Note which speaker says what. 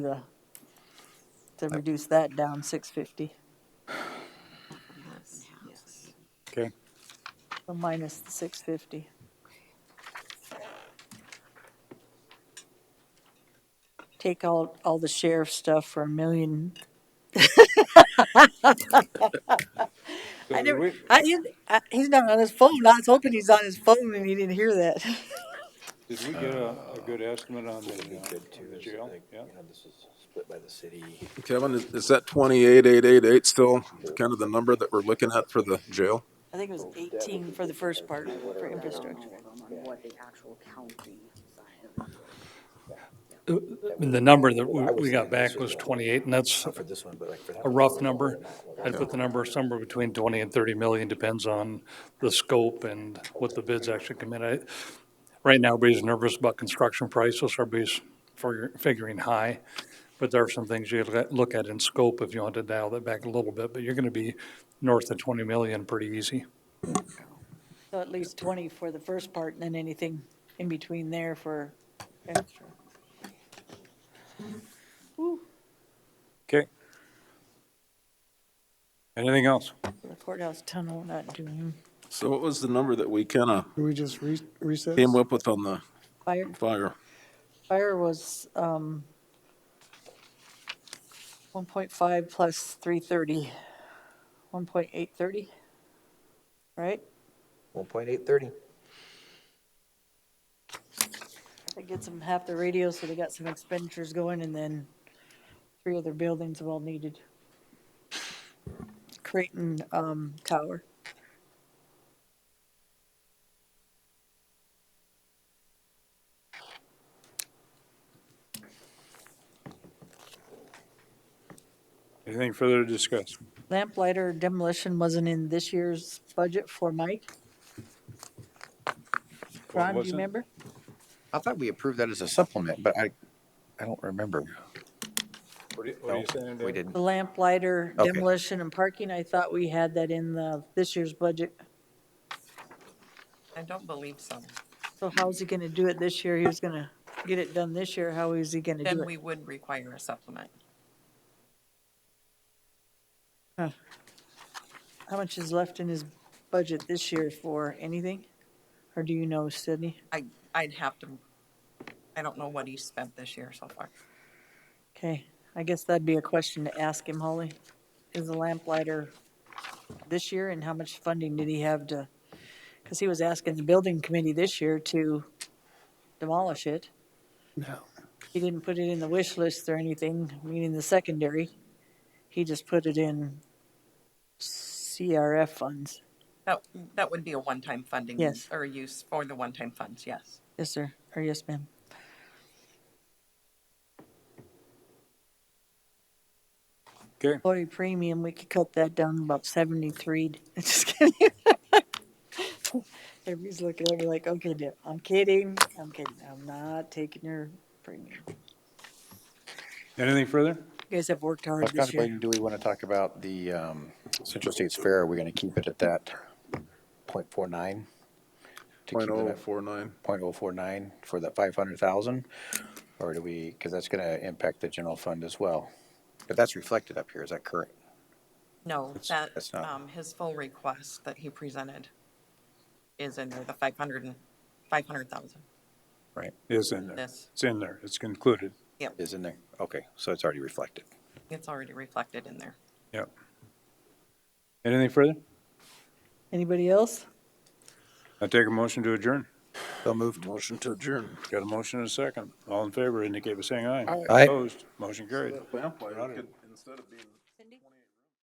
Speaker 1: the- to reduce that down six fifty,
Speaker 2: Okay,
Speaker 1: so minus the six fifty. Take out all the sheriff stuff for a million. I never,
Speaker 2: we-
Speaker 1: I, he- I- he's not on his phone, I was hoping he's on his phone and he didn't hear that.
Speaker 2: did we get a, a good estimate on the, uh, on the jail? Yeah,
Speaker 3: this is split by the city.
Speaker 4: Kevin, is is that 28,888 still kind of the number that we're looking at for the jail?
Speaker 1: I think it was eighteen for the first part, for infrastructure.
Speaker 5: on what the actual county side of it.
Speaker 6: The number that we we got back was 28, and that's
Speaker 3: For this one, but like for that.
Speaker 6: a rough number. I'd put the number somewhere between 20 and 30 million, depends on the scope and what the bids actually come in. I- Right now, everybody's nervous about construction prices, everybody's figure- figuring high, but there are some things you gotta look at in scope if you want to dial that back a little bit, but you're going to be north of 20 million pretty easy.
Speaker 1: So at least twenty for the first part and then anything in between there for extra.
Speaker 2: okay. Anything else?
Speaker 1: The courthouse tunnel not doing
Speaker 4: So what was the number that we kind of
Speaker 7: Do we just re- recess?
Speaker 4: came up with on the
Speaker 1: fire.
Speaker 4: fire?
Speaker 1: Fire was, um, one point five plus three thirty, one point eight thirty, right?
Speaker 3: One point eight thirty.
Speaker 1: That gets them half the radio, so they got some expenditures going, and then three other buildings well needed. Creighton, um, Tower.
Speaker 2: Anything further to discuss?
Speaker 1: Lamplighter demolition wasn't in this year's budget for Mike. Ron, do you
Speaker 2: wasn't?
Speaker 1: remember?
Speaker 8: I thought we approved that as a supplement, but I, I don't remember.
Speaker 2: What do you- what are you saying,
Speaker 8: We
Speaker 2: Dave?
Speaker 8: didn't.
Speaker 1: The lamplighter
Speaker 8: Okay.
Speaker 1: demolition and parking, I thought we had that in the, this year's budget.
Speaker 9: I don't believe so.
Speaker 1: So how's he gonna do it this year? He was gonna get it done this year. How is he gonna do
Speaker 9: Then
Speaker 1: it?
Speaker 9: we would require a supplement.
Speaker 1: How much is left in his budget this year for anything? Or do you know, Sydney?
Speaker 9: I, I'd have to, I don't know what he spent this year so far.
Speaker 1: Okay, I guess that'd be a question to ask him, Holly. Is the lamplighter this year and how much funding did he have to? Cause he was asking the building committee this year to demolish it.
Speaker 7: No.
Speaker 1: He didn't put it in the wish list or anything, meaning the secondary. He just put it in CRF funds.
Speaker 9: That, that would be a one-time funding.
Speaker 1: Yes.
Speaker 9: Or use for the one-time funds, yes.
Speaker 1: Yes, sir, or yes, ma'am.
Speaker 2: Okay.
Speaker 1: Employee premium, we could cut that down about seventy-three, just kidding. Everybody's looking at me like, okay, Deb, I'm kidding, I'm kidding, I'm not taking your premium. You
Speaker 2: Anything further?
Speaker 1: guys have worked
Speaker 8: I
Speaker 1: hard
Speaker 8: was
Speaker 1: this year.
Speaker 8: contemplating, do we want to talk about the um, Central States Fair? Are we going to keep it at that point four nine? To keep
Speaker 4: oh.
Speaker 8: it at
Speaker 4: 0.049.
Speaker 8: point oh four nine for that five hundred thousand? Or do we, because that's going to impact the general fund as well. But that's reflected up here, is that correct?
Speaker 9: No, that,
Speaker 8: that's not-
Speaker 9: um, his full request that he presented is in there, the five hundred and, five hundred thousand.
Speaker 8: Right,
Speaker 2: It's in there.
Speaker 9: Yes.
Speaker 2: It's in there. It's concluded.
Speaker 8: is in there? Okay, so it's already reflected.
Speaker 9: It's already reflected in there.
Speaker 2: Yep. Anything further?
Speaker 1: Anybody else?
Speaker 2: I take a motion to adjourn.
Speaker 8: So moved.
Speaker 4: Motion to adjourn.
Speaker 2: Got a motion and a second. All in favor indicate by saying aye.
Speaker 8: Aye.
Speaker 2: Opposed, motion carried.
Speaker 4: Lamplighter could, instead of being